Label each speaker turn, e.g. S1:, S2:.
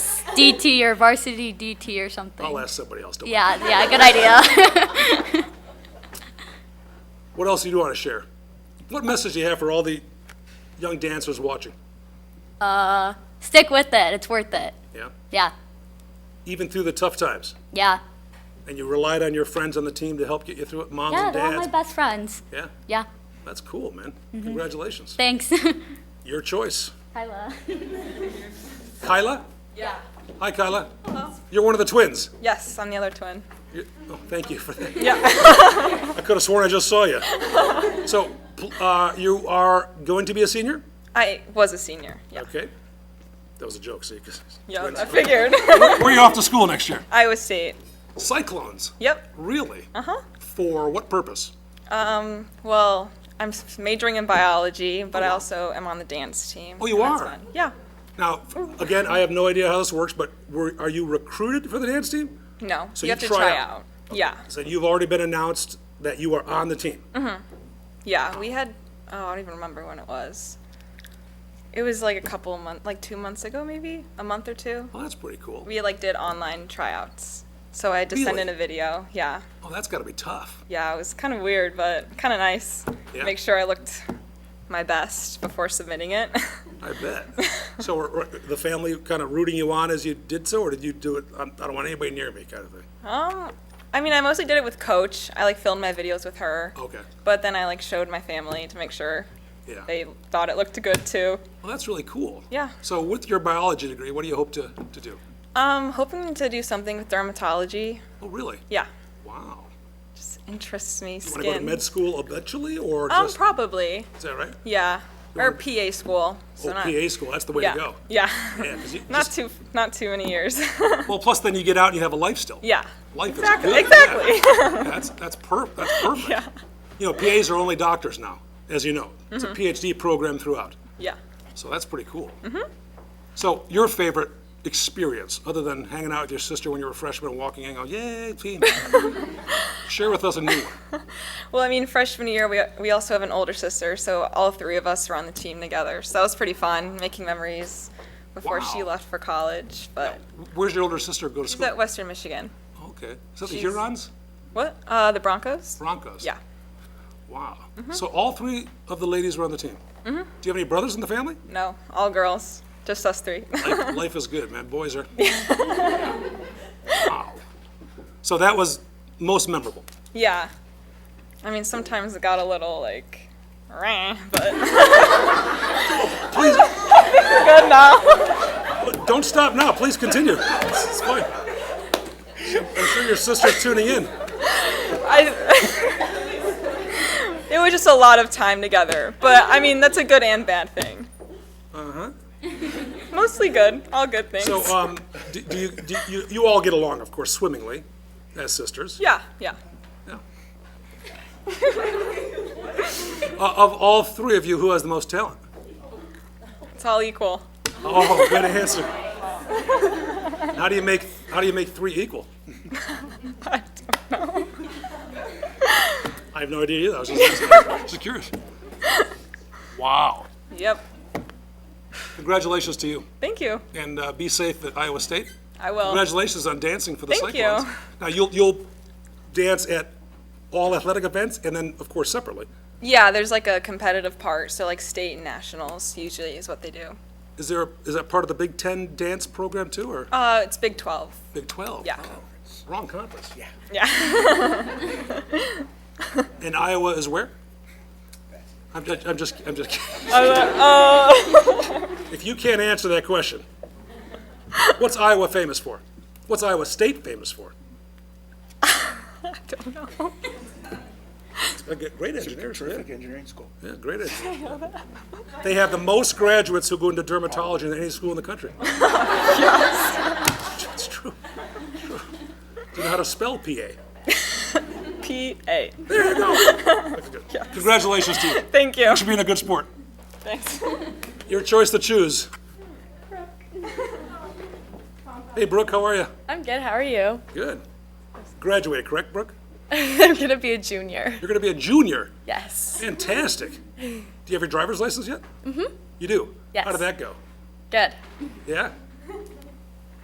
S1: DT or varsity DT or something.
S2: I'll ask somebody else. don't worry.
S1: Yeah, yeah, good idea.
S2: What else do you want to share? What message do you have for all the young dancers watching?
S1: Stick with it. It's worth it.
S2: Yeah,
S1: Yeah,
S2: even through the tough times,
S1: yeah.
S2: and you relied on your friends on the team to help get you through it, moms
S1: Yeah,
S2: and
S1: they're all my
S2: dads.
S1: best Mm-hmm. friends.
S2: Yeah,
S1: Yeah,
S2: that's cool, man. Congratulations.
S1: thanks.
S2: Your choice.
S1: Kyla.
S2: Kyla?
S3: Yeah.
S2: Hi, Kyla. You're one of the twins.
S3: Yes, I'm the other twin.
S2: You're- oh, thank you for that.
S3: Yeah.
S2: I could have sworn I just saw you. So, pl- uh, you are going to be a senior?
S3: I was a senior. Yeah.
S2: Okay. That was a joke, see? 'cause it's
S3: Yeah,
S2: twins.
S3: I figured.
S2: Where are you off to school next year?
S3: Iowa State.
S2: Cyclones.
S3: Yep.
S2: Really? Uh
S3: Uh-huh.
S2: huh. For what purpose?
S3: Um, well, I'm s- majoring in biology, but I also am on the dance team.
S2: Oh, you
S3: and that's
S2: are?
S3: fun. Yeah.
S2: Now, again, I have no idea how this works, but were, are you recruited for the dance team?
S3: No.
S2: So
S3: you,
S2: you
S3: have to
S2: try
S3: try,
S2: out.
S3: out. Yeah.
S2: So you've already been announced that you are on the team.
S3: Uh-huh. Yeah. We had. Oh, I don't even remember when it was. It was like a couple of months, like two months ago, maybe a month or two.
S2: Well, that's pretty cool.
S3: We like did online tryouts. So I had to send
S2: Really?
S3: in a video. Yeah.
S2: Oh, that's got to be tough.
S3: Yeah, it was kind of weird, but kind of nice.
S2: Yeah.
S3: Make sure I looked my best before submitting it.
S2: I bet. so were, were the family kind of rooting you on as you did so, or did you do it? I'm, I don't want anybody near me, kind of thing.
S3: um, I mean, I mostly did it with Coach. I like filmed my videos with her.
S2: Okay.
S3: But then I like showed my family to make sure
S2: Yeah.
S3: they thought it looked good too.
S2: Well, that's really cool.
S3: Yeah.
S2: So with your biology degree, what do you hope to, to do?
S3: Um, hoping to do something with dermatology.
S2: Oh, really?
S3: Yeah,
S2: Wow.
S3: just interests me.
S2: You
S3: Skin.
S2: want to go to med school eventually, or
S3: um,
S2: just
S3: probably.
S2: is that right?
S3: Yeah, or
S2: wanna-
S3: PA school. So
S2: oh,
S3: not.
S2: PA school. That's the way
S3: yeah.
S2: to go.
S3: Yeah.
S2: Yeah, 'cause you
S3: not
S2: just-
S3: too. Not too many years.
S2: Well, plus then you get out and you have a life still.
S3: yeah.
S2: Life
S3: Exactly.
S2: is good.
S3: Exactly.
S2: Yeah. That's that's per that's perfect. You know, PAs are only doctors now, as you know. It's
S3: Mm-hmm.
S2: a PhD program throughout.
S3: Yeah.
S2: So that's pretty cool.
S3: Mm-hmm.
S2: So your favorite experience, other than hanging out with your sister when you were a freshman and walking in, and going, yay, team. Share with us a new one.
S3: Well, I mean, freshman year, we, we also have an older sister, so all three of us were on the team together. So that was pretty fun, making memories before she
S2: Wow.
S3: left for college. But
S2: Where's your older sister go to
S3: she's at
S2: school?
S3: Western Michigan.
S2: Okay. Is that the
S3: she's-
S2: Hurons?
S3: What? Uh, the Broncos?
S2: Broncos?
S3: Yeah. Mm-hmm.
S2: Wow. So all three of the ladies were on the team? Mm-hmm. Do you have any brothers in the family?
S3: No, all girls. Just us three.
S2: Life, life is good, man. Boys are. wow. So that was most memorable.
S3: yeah. I mean, sometimes it got a little like, "Rah," but
S2: Please
S3: good now.
S2: but don't stop now. Please continue. It's, it's fine. I'm sure your sister's tuning in.
S3: I, it was just a lot of time together. But I mean, that's a good and bad thing.
S2: Uh huh.
S3: Mostly good. All good things.
S2: So um, do, do you do you you all get along, of course, swimmingly, as sisters.
S3: yeah, yeah.
S2: Yeah. Uh, of all three of you, who has the most talent?
S3: It's all equal.
S2: Oh, good answer. How do you make how do you make three equal?
S3: I don't know.
S2: I have no idea either. I was just, just, just curious. Wow.
S3: Yep.
S2: Congratulations to you.
S3: Thank you.
S2: And uh, be safe at Iowa State.
S3: I will.
S2: Congratulations on dancing for the
S3: Thank you.
S2: Cyclones. Now, you'll, you'll dance at all athletic events and then, of course, separately.
S3: yeah, there's like a competitive part, so like state and nationals usually is what they do.
S2: Is there, is that part of the Big Ten dance program too, or
S3: Uh, it's Big 12.
S2: Big 12?
S3: yeah.
S2: Oh, Wrong conference. Yeah.
S3: Yeah.
S2: And Iowa is where? I'm just, I'm just, I'm just kidding.
S3: Oh, uh,
S2: If you can't answer that question, what's Iowa famous for? What's Iowa State famous for?
S3: don't know.
S2: Uh, g- Great engineers, right?
S4: engineering school.
S2: Yeah, great engineers. They have the most graduates who go into dermatology than any school in the country. It's true. It's true. Do you know how to spell PA?
S3: P A.
S2: There you go. That's good. Congratulations to you.
S3: Thank you.
S2: Thanks for being a good sport.
S3: Thanks.
S2: Your choice to choose. Hey, Brooke, how are you?
S5: I'm good. How are you?
S2: Good. Graduated, correct, Brooke?
S5: I'm gonna be a junior.
S2: You're going to be a junior.
S5: Yes.
S2: Fantastic. Do you have your driver's license yet? Mm-hmm. You do? How
S5: Yes.
S2: did that go?
S5: Good.
S2: Yeah?